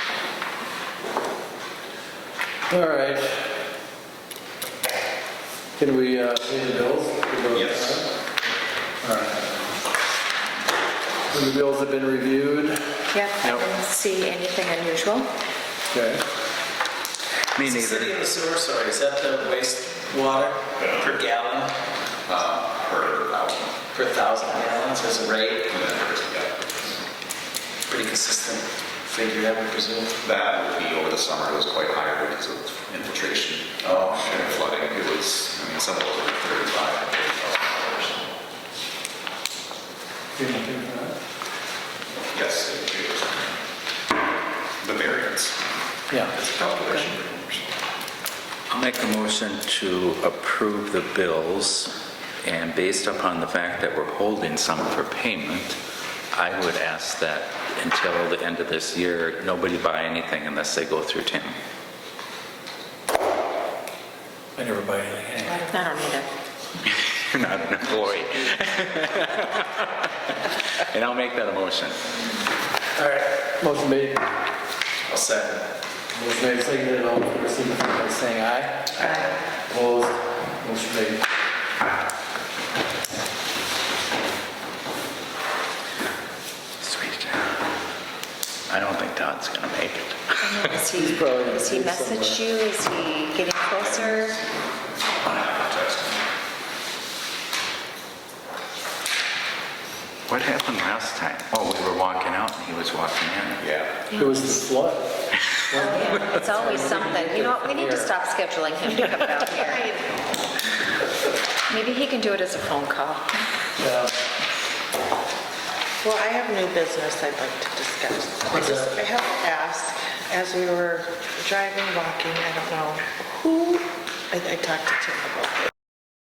All right. Can we uh, pay the bills? We go- Yes. All right. The bills have been reviewed. Yep, I Yep. didn't see anything unusual. Okay. Me Is the city neither. of the sewer, sorry, is that the wastewater per gallon, uh, per thousand. per thousand gallons as a rate? And then there's, yeah, Pretty consistent figure, I would presume. that would be over the summer, it was quite higher because of infiltration. Oh, sure. Flooding, it was, I mean, some of those were thirty-five, forty thousand dollars. Yes, it was. The variance, Yeah. it's a calculation. I'll make a motion to approve the bills, and based upon the fact that we're holding some for payment, I would ask that until the end of this year, nobody buy anything unless they go through Tim. I never buy anything. I don't either. You're not an employee. And I'll make that a motion. All right. Motion made, I'll second. motion made, seconded, all in favor, signify by saying aye. Aye. Opposed, motion made. Sweet. I don't think Todd's going to make it. I mean, Is he, He's probably has he gonna be somewhere. messaged you? Is he getting closer? What happened last time? Oh, we were walking out and he was walking in. Yeah. It was the flood. Yeah, It's always something. You know what, we need to stop scheduling him to come down here. Maybe he can do it as a phone call. Yeah. Well, I have new business I'd like to discuss. I just- I have to ask, as we were driving, walking, I don't know who, I I talked to Tim about this.